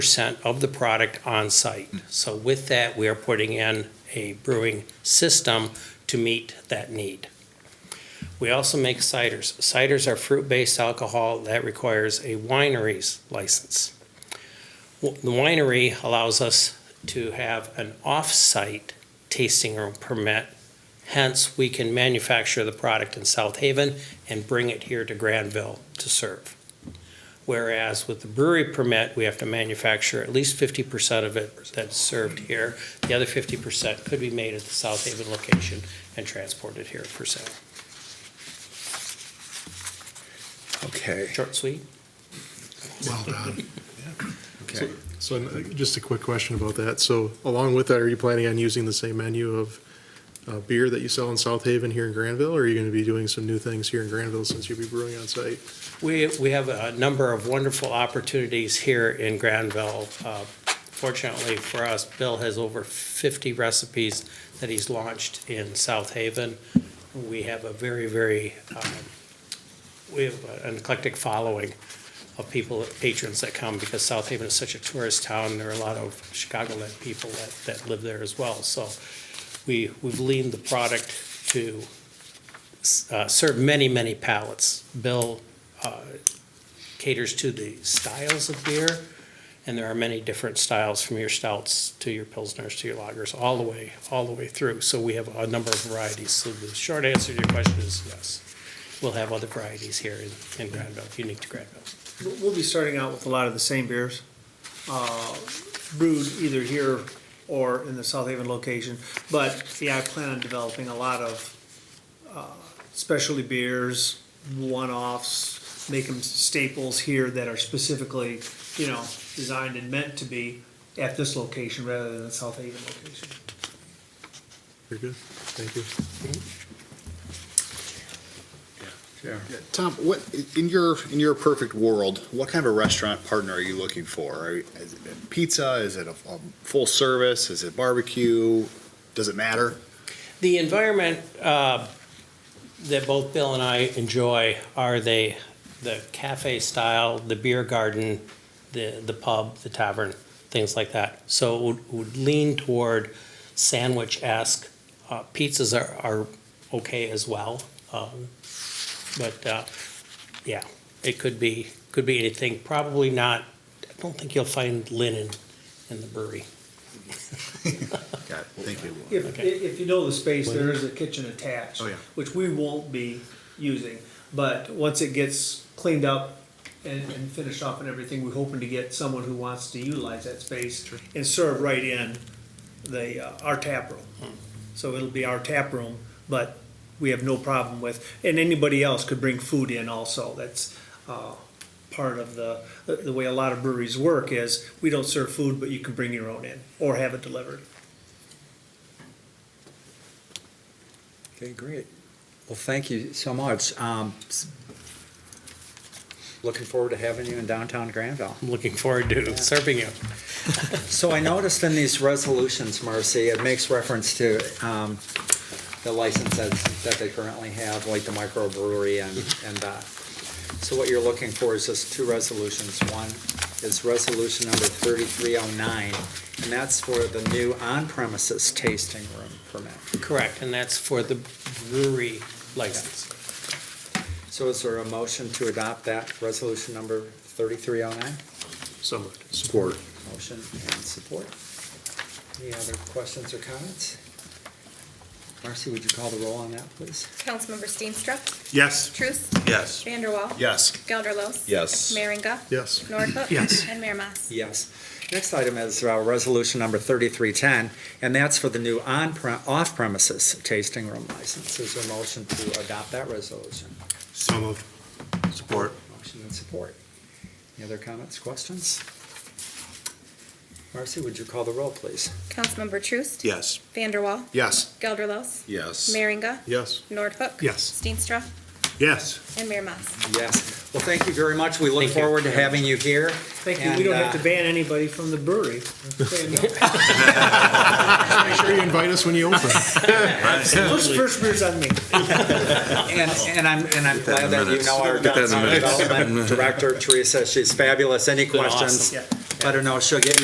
percent of the product on-site. So with that, we are putting in a brewing system to meet that need. We also make ciders. Ciders are fruit-based alcohol that requires a winery's license. W- The winery allows us to have an off-site tasting room permit. Hence, we can manufacture the product in South Haven and bring it here to Granville to serve. Whereas with the brewery permit, we have to manufacture at least fifty percent of it that's served here. The other fifty percent could be made at the South Haven location and transported here for sale. Okay. Short, sweet? Well done. Okay. So uh, just a quick question about that. So along with that, are you planning on using the same menu of uh, beer that you sell in South Haven here in Granville? Or are you going to be doing some new things here in Granville since you'll be brewing on site? We, we have a number of wonderful opportunities here in Granville. Uh, Fortunately for us, Bill has over 50 recipes that he's launched in South Haven. We have a very, very, um, we have an eclectic following of people, patrons that come because South Haven is such a tourist town. There are a lot of Chicagoland people that, that live there as well. So we, we've leaned the product to uh, serve many, many palates. Bill uh, caters to the styles of beer, and there are many different styles from your stouts to your pilsners to your lagers, all the way, all the way through. So we have a number of varieties. So the short answer to your question is yes. We'll have other varieties here in, in Granville, unique to Granville. We'll- We'll be starting out with a lot of the same beers, uh, brewed either here or in the South Haven location. But yeah, I plan on developing a lot of uh, specialty beers, one-offs, make them staples here that are specifically, you know, designed and meant to be at this location rather than the South Haven location. Very good. Thank you. Yeah. Tom, what, In your in your perfect world, what kind of a restaurant partner are you looking for? Are, is it pizza? Is it a, a full service? Is it barbecue? Does it matter? The environment uh, that both Bill and I enjoy are the, the cafe style, the beer garden, the, the pub, the tavern, things like that. So it would- would lean toward sandwich-esque. Uh, Pizzas are, are okay as well. um, But, uh, yeah, it could be, could be anything. Probably not, I don't think you'll find linen in the brewery. Got it. Thank you. If, Okay. if you know the space, there is a kitchen attached. Oh, yeah. Which we won't be using, but once it gets cleaned up and, and finished off and everything, we're hoping to get someone who wants to utilize that space and serve right in the, uh, our tap room. Hmm. So it'll be our tap room, but we have no problem with, and anybody else could bring food in also, that's, uh, part of the, the way a lot of breweries work is, we don't serve food, but you can bring your own in, or have it delivered. Okay, great. Well, thank you so much. Um, s- Looking forward to having you in downtown Granville. I'm looking forward to serving you. So I noticed in these resolutions, Marcy, it makes reference to um, the licenses that they currently have, like the microbrewery and, and that. So what you're looking for is just two resolutions. One is resolution number 3309, and that's for the new on-premises tasting room permit. Correct, and that's for the brewery license. So is there a motion to adopt that resolution number 3309? So moved. Support. Motion and support. Any other questions or comments? Marcy, would you call the roll on that, please? Councilmember Steenstra, yes, Truce, Yes. Vanderwall, Yes. Gelderlos. Yes. Merringa, Yes. Nordhook. Yes. And Mayor Mas. Yes. Next item is uh, resolution number 3310, and that's for the new on, off-premises tasting room license. Is there a motion to adopt that resolution? so moved, Support. Motion and support. Any other comments, questions? Marcy, would you call the roll, please? Councilmember Truce, Yes. Vanderwall, Yes. Gelderlos, Yes. Merringa, Yes. Nordhook. Yes. Steenstra yes. and Mayor Mas. Yes. Well, thank you very much. We look Thank you. forward to having you here. Thank you, we don't have to And, uh, ban anybody from the brewery. Make sure you invite us when you open. Those first beers on me. And, and I'm, and I'm glad in the that you minutes. know our Get that in the downtown minutes. development director, Teresa, she's fabulous. Any been questions? awesome. Let her know she'll get